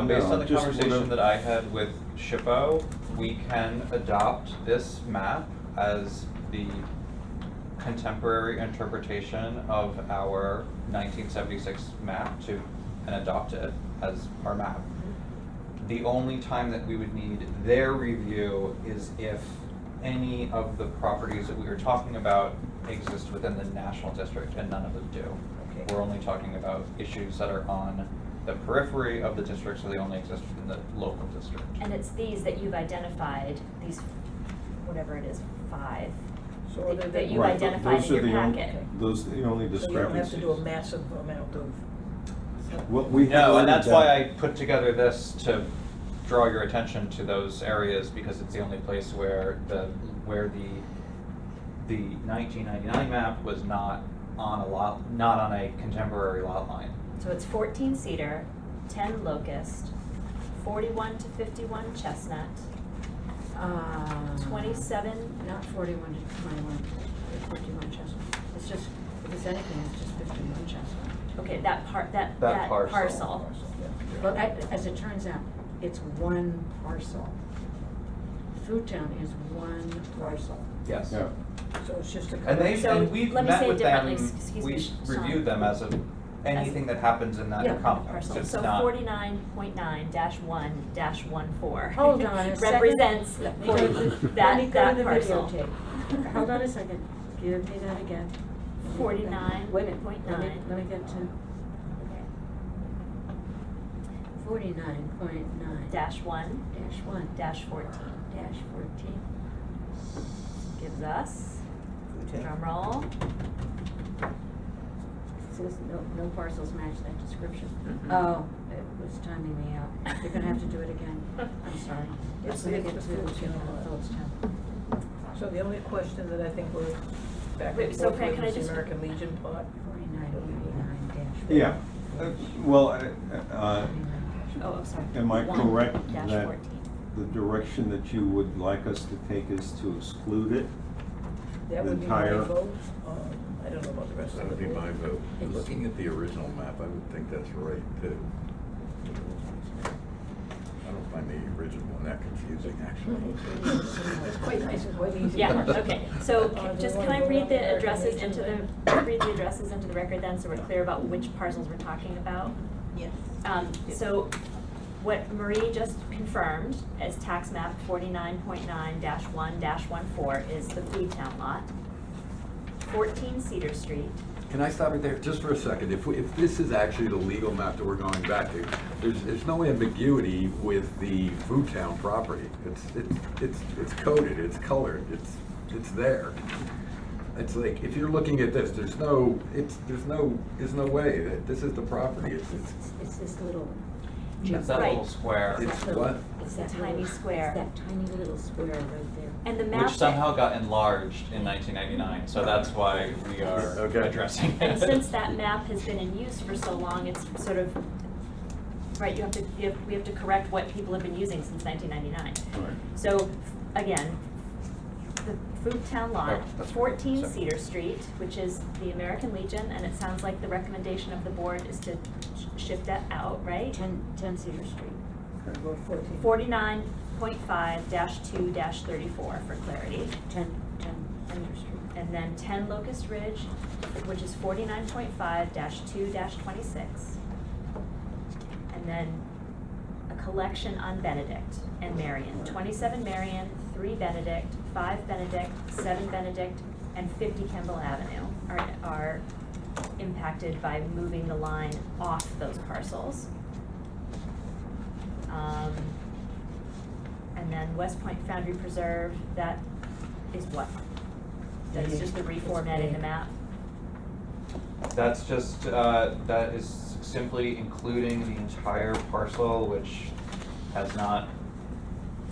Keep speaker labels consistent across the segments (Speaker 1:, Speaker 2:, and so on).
Speaker 1: Um, Based on the
Speaker 2: No, just
Speaker 1: conversation
Speaker 2: whatever.
Speaker 1: that I had with Shippo, we can adopt this map as the contemporary interpretation of our nineteen seventy-six map to, and adopt it as our map. The only time that we would need their review is if any of the properties that we were talking about exist within the national district, and none of them do.
Speaker 3: Okay.
Speaker 1: We're only talking about issues that are on the periphery of the district, so they only exist within the local district.
Speaker 3: And it's these that you've identified, these, whatever it is, five,
Speaker 4: So are they
Speaker 3: that
Speaker 4: the-
Speaker 3: that you've
Speaker 2: Right, th-
Speaker 3: identified
Speaker 2: those
Speaker 3: in
Speaker 2: are the
Speaker 3: your
Speaker 2: on-
Speaker 3: packet.
Speaker 2: Those are the only
Speaker 4: So you don't have
Speaker 2: discrepancies.
Speaker 4: to do a massive amount of.
Speaker 2: What we have
Speaker 1: No, and
Speaker 2: already
Speaker 1: that's why I
Speaker 2: done-
Speaker 1: put together this to draw your attention to those areas, because it's the only place where the, where the, the nineteen ninety-nine map was not on a lot, not on a contemporary lot line.
Speaker 3: So it's fourteen cedar, ten locust, forty-one to fifty-one chestnut,
Speaker 5: Uh,
Speaker 1: Mm.
Speaker 3: twenty-seven,
Speaker 5: Not forty-one to twenty-one, fifty-one Chestnut. It's just, if it's anything, it's just fifty-one Chestnut.
Speaker 3: okay, that part, that,
Speaker 1: That
Speaker 3: that
Speaker 1: parcel.
Speaker 3: parcel.
Speaker 5: But a- as it turns out, it's one parcel. Food Town is one parcel.
Speaker 1: Yes.
Speaker 2: Yeah.
Speaker 4: So it's just a.
Speaker 1: And they,
Speaker 3: So,
Speaker 1: and we've
Speaker 3: let me say
Speaker 1: met
Speaker 3: it
Speaker 1: with them,
Speaker 3: differently, s- excuse me,
Speaker 1: we
Speaker 3: Sean.
Speaker 1: reviewed them as of anything that happens in that
Speaker 5: Yeah,
Speaker 1: complex,
Speaker 3: parcel.
Speaker 1: it's
Speaker 3: So
Speaker 1: not.
Speaker 3: forty-nine point nine dash one dash one four.
Speaker 5: Hold on a second.
Speaker 3: Represents
Speaker 5: Let me go
Speaker 3: forty,
Speaker 5: to the- let me
Speaker 3: that,
Speaker 5: go
Speaker 3: that
Speaker 5: to the
Speaker 3: parcel.
Speaker 5: videotape. Hold on a second, give me that again.
Speaker 3: Forty-nine
Speaker 5: Wait a minute,
Speaker 3: point
Speaker 5: let me-
Speaker 3: nine.
Speaker 5: Let me get to forty-nine point nine.
Speaker 3: Dash one,
Speaker 5: Dash one.
Speaker 3: dash fourteen.
Speaker 5: Dash fourteen.
Speaker 3: Gives us,
Speaker 4: Okay.
Speaker 3: drum roll,
Speaker 5: Says no, no parcels match that description.
Speaker 3: Mm-hmm.
Speaker 1: Mhm.
Speaker 5: Oh, it was timing me out. You're gonna have to do it again. I'm sorry.
Speaker 4: It's-
Speaker 5: Let me
Speaker 4: it's
Speaker 5: get
Speaker 4: the
Speaker 5: to
Speaker 4: Phillips
Speaker 5: to
Speaker 4: Town.
Speaker 5: Phillips Town.
Speaker 4: So the only question that I think we're back
Speaker 3: Wait,
Speaker 4: and
Speaker 3: so
Speaker 4: forth
Speaker 3: Fran,
Speaker 4: with
Speaker 3: can I
Speaker 4: is the
Speaker 3: just-
Speaker 4: American Legion plot.
Speaker 5: Forty-nine, forty-nine dash. one.
Speaker 2: Yeah, Uh, well, I- uh,
Speaker 5: 49 dash
Speaker 3: oh, I'm sorry.
Speaker 2: Am I correct
Speaker 3: One dash
Speaker 2: that-
Speaker 3: fourteen.
Speaker 2: the direction that you would like us to take is to exclude it.
Speaker 4: That
Speaker 2: The
Speaker 4: would be my
Speaker 2: entire-
Speaker 4: vote. Um, I don't know about the rest of
Speaker 6: That
Speaker 4: the
Speaker 6: would be
Speaker 4: board.
Speaker 6: my vote. Looking at the original map, I would think that's right too. I don't find the original one that confusing, actually.
Speaker 4: It's quite nice, it's quite easy.
Speaker 3: Yeah, okay, so
Speaker 4: Uh,
Speaker 3: ca-
Speaker 4: do
Speaker 3: just
Speaker 4: you
Speaker 3: can I
Speaker 4: wanna go
Speaker 3: read
Speaker 4: down
Speaker 3: the
Speaker 4: American
Speaker 3: addresses
Speaker 4: Legion
Speaker 3: into
Speaker 4: then?
Speaker 3: the, read the addresses into the record then, so we're clear about which parcels we're talking about?
Speaker 4: Yes.
Speaker 3: Um, so what Marie just confirmed as tax map forty-nine point nine one dash one four is the Food Town lot. Fourteen Cedar Street,
Speaker 6: Can I stop it there just for a second? If, we- if this is actually the legal map that we're going back to, there's, there's no ambiguity with the Food Town property. It's, it's, it's it's coded, it's colored, it's, it's there. It's like, if you're looking at this, there's no, it's, there's no, there's no way that this is the property. It's, it's,
Speaker 5: It's, it's this little.
Speaker 1: It's that little
Speaker 3: Right.
Speaker 1: square,
Speaker 6: It's
Speaker 5: that little-
Speaker 6: what?
Speaker 5: It's
Speaker 3: The
Speaker 5: that
Speaker 3: tiny
Speaker 5: little-
Speaker 3: square.
Speaker 5: It's that tiny little square right there.
Speaker 3: and the map.
Speaker 1: which
Speaker 3: that-
Speaker 1: somehow got enlarged in nineteen ninety-nine, so that's why we are
Speaker 6: Okay.
Speaker 1: addressing it.
Speaker 3: And since that map has been in use for so long, it's sort of, right, you have to, you have, we have to correct what people have been using since nineteen ninety-nine.
Speaker 2: Right.
Speaker 3: So, again, the Food Town Lot,
Speaker 1: Oh, that's correct,
Speaker 3: fourteen
Speaker 1: sorry.
Speaker 3: Cedar Street, which is the American Legion, and it sounds like the recommendation of the board is to sh- shift that out, right?
Speaker 5: Ten, ten Cedar Street.
Speaker 4: Vote fourteen.
Speaker 3: Forty-nine point five two thirty-four for clarity.
Speaker 5: Ten, ten Cedar Street.
Speaker 3: And then ten Locust Ridge, which is forty-nine point five two twenty-six. And then a collection on Benedict and Marion, twenty-seven Marion, three Benedict, five Benedict, seven Benedict, and fifty Kemble Avenue are, are impacted by moving the line off those parcels. Um, and then West Point Foundry Preserve, that is what? That's just the reformatting the map?
Speaker 1: That's just, uh, that is simply including the entire parcel, which has not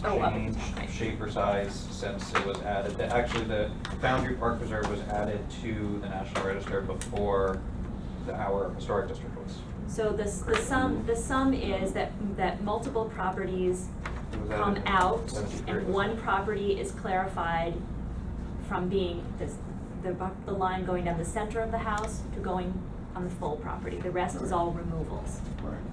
Speaker 3: Oh, up,
Speaker 1: changed
Speaker 3: right.
Speaker 1: shape or size since it was added. The- Actually, the Foundry Park Preserve was added to the National Register before the, our historic district was.
Speaker 3: So the, s- the sum, the sum is that, that multiple properties
Speaker 1: It was
Speaker 3: come
Speaker 1: added in
Speaker 3: out
Speaker 1: 73,
Speaker 3: and
Speaker 1: wasn't
Speaker 3: one
Speaker 1: it?
Speaker 3: property is clarified from being this, the, bu- the line going down the center of the house to going on the full property. The rest is all removals.
Speaker 2: Right.